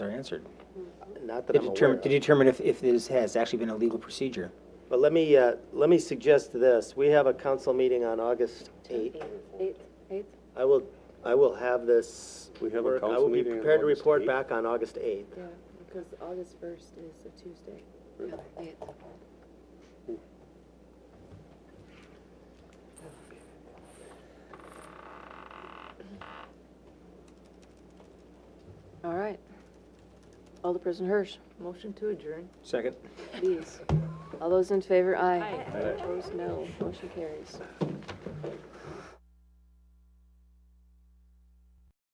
are answered. Not that To I'm aware determine, of. to determine if, if this has actually been a legal procedure. But let me, uh, let me suggest this. We have a council meeting on August 8th. Eighth, eighth, I will, I will have this. We have a work- council I will be meeting on prepared to August report 8th? back on August 8th. yeah, because August first is a Tuesday. Eighth. All right. Alderperson Hirsch, Motion to adjourn. Second. please. All those in favor, aye. Aye. Opposed, no. Motion carries.